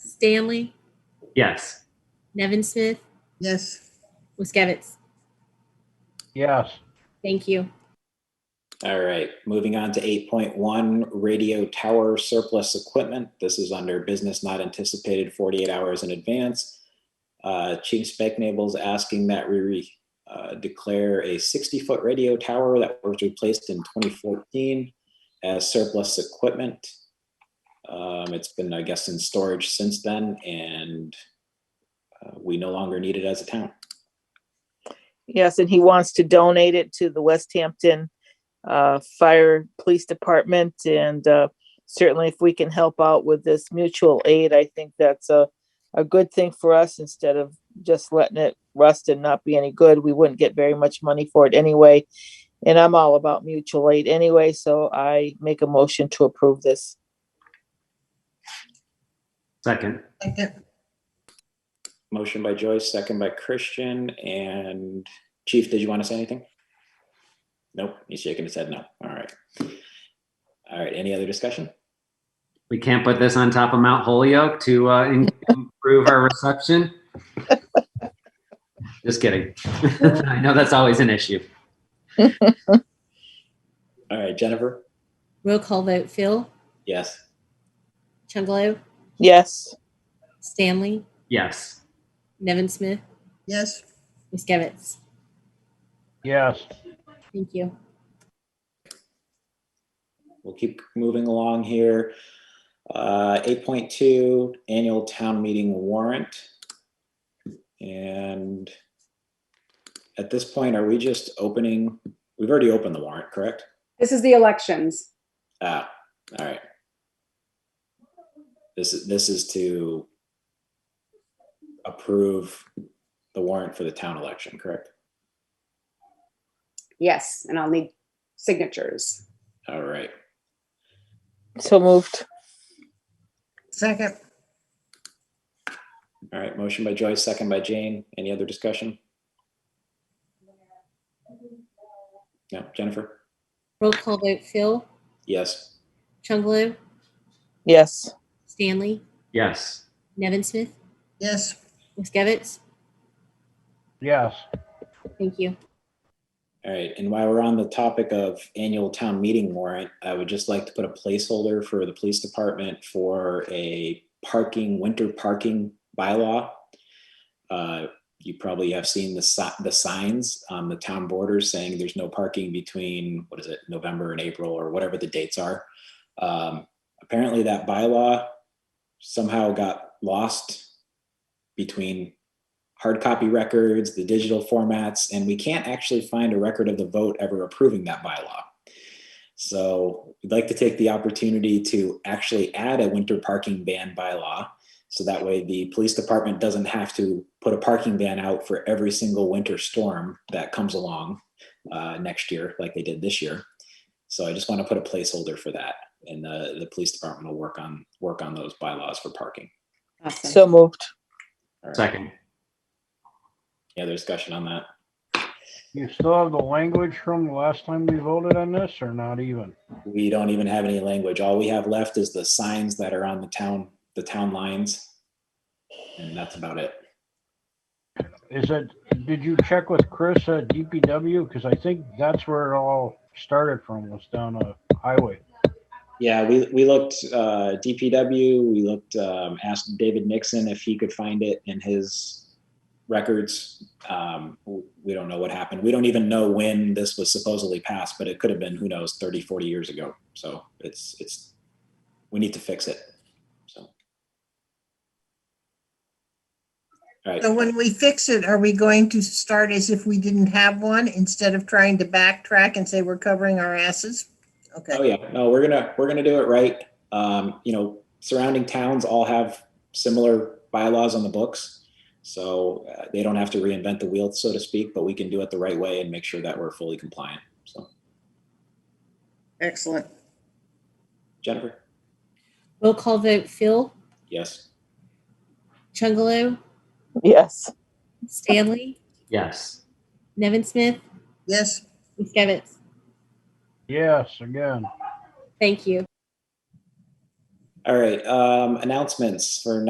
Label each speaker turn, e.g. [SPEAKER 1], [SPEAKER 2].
[SPEAKER 1] Stanley,
[SPEAKER 2] Yes.
[SPEAKER 1] Nevin Smith,
[SPEAKER 3] Yes.
[SPEAKER 1] Wiskevitz.
[SPEAKER 4] yes,
[SPEAKER 1] Thank you.
[SPEAKER 5] All right, moving on to eight point one, radio tower surplus equipment. This is under business not anticipated forty-eight hours in advance. Uh, Chief Specknable's asking that we re- uh, declare a sixty-foot radio tower that was replaced in twenty fourteen as surplus equipment. Um, it's been, I guess, in storage since then, and uh, we no longer need it as a town.
[SPEAKER 6] Yes, and he wants to donate it to the West Hampton uh, Fire Police Department. And uh, certainly if we can help out with this mutual aid, I think that's a, a good thing for us instead of just letting it rust and not be any good. We wouldn't get very much money for it anyway. And I'm all about mutual aid anyway, so I make a motion to approve this.
[SPEAKER 2] Second.
[SPEAKER 3] Second.
[SPEAKER 5] Motion by Joyce, second by Christian, and Chief, did you want to say anything? Nope, he's shaking his head no. All right. All right, any other discussion?
[SPEAKER 2] We can't put this on top of Mount Holyoke to uh, in- improve our reception. Just kidding. I know that's always an issue.
[SPEAKER 5] All right, Jennifer?
[SPEAKER 1] Roll call vote Phil,
[SPEAKER 5] Yes.
[SPEAKER 1] Chungalo,
[SPEAKER 6] Yes,
[SPEAKER 1] Stanley,
[SPEAKER 2] Yes.
[SPEAKER 1] Nevin Smith,
[SPEAKER 3] Yes.
[SPEAKER 1] Wiskevitz.
[SPEAKER 4] yes,
[SPEAKER 1] Thank you.
[SPEAKER 5] We'll keep moving along here. Uh, eight point two, annual town meeting warrant. And at this point, are we just opening, we've already opened the warrant, correct?
[SPEAKER 7] This is the elections.
[SPEAKER 5] Ah, all right. This is, this is to approve the warrant for the town election, correct?
[SPEAKER 7] Yes, and I'll need signatures.
[SPEAKER 5] All right,
[SPEAKER 6] so moved.
[SPEAKER 3] Second.
[SPEAKER 5] all right. Motion by Joyce, second by Jane. Any other discussion? No, Jennifer?
[SPEAKER 1] Roll call vote Phil,
[SPEAKER 5] Yes.
[SPEAKER 1] Chungalo,
[SPEAKER 6] Yes,
[SPEAKER 1] Stanley,
[SPEAKER 2] Yes.
[SPEAKER 1] Nevin Smith,
[SPEAKER 3] Yes.
[SPEAKER 1] Wiskevitz.
[SPEAKER 4] yes,
[SPEAKER 1] Thank you.
[SPEAKER 5] All right, and while we're on the topic of annual town meeting warrant, I would just like to put a placeholder for the police department for a parking, winter parking bylaw. Uh, You probably have seen the si- the signs on the town borders saying there's no parking between, what is it, November and April or whatever the dates are. Um, Apparently that bylaw somehow got lost between hard copy records, the digital formats, and we can't actually find a record of the vote ever approving that bylaw. So we'd like to take the opportunity to actually add a winter parking ban bylaw. So that way the police department doesn't have to put a parking ban out for every single winter storm that comes along uh, next year, like they did this year. So I just want to put a placeholder for that. And uh, the, the police department will work on, work on those bylaws for parking.
[SPEAKER 7] Awesome.
[SPEAKER 6] so moved.
[SPEAKER 5] All right.
[SPEAKER 2] Second.
[SPEAKER 5] Any other discussion on that?
[SPEAKER 4] you still have the language from the last time we voted on this or not even?
[SPEAKER 5] we don't even have any language. All we have left is the signs that are on the town, the town lines. And that's about it.
[SPEAKER 4] Is it, did you check with Chris at DPW? Because I think that's where it all started from, was down a highway.
[SPEAKER 5] Yeah, we, we looked, uh, DPW, we looked, um, asked David Nixon if he could find it in his records. Um, w- we don't know what happened. We don't even know when this was supposedly passed, but it could have been, who knows, 30, 40 years ago. So it's, it's, we need to fix it. So. All right.
[SPEAKER 3] So when we fix it, are we going to start as if we didn't have one instead of trying to backtrack and say we're covering our asses?
[SPEAKER 5] Oh
[SPEAKER 3] Okay,
[SPEAKER 5] yeah, no, we're gonna we're gonna do it right. Um, you know, surrounding towns all have similar bylaws on the books, so uh, they don't have to reinvent the wheel, so to speak. But we can do it the right way and make sure that we're fully compliant. So,
[SPEAKER 3] excellent.
[SPEAKER 5] Jennifer,
[SPEAKER 1] Roll call vote Phil,
[SPEAKER 5] yes,
[SPEAKER 1] Chungalo,
[SPEAKER 6] Yes,
[SPEAKER 1] Stanley,
[SPEAKER 2] Yes.
[SPEAKER 1] Nevin Smith,
[SPEAKER 3] Yes.
[SPEAKER 1] Wiskevitz.
[SPEAKER 4] Yes, again.
[SPEAKER 1] Thank you.
[SPEAKER 5] all right. Um, announcements for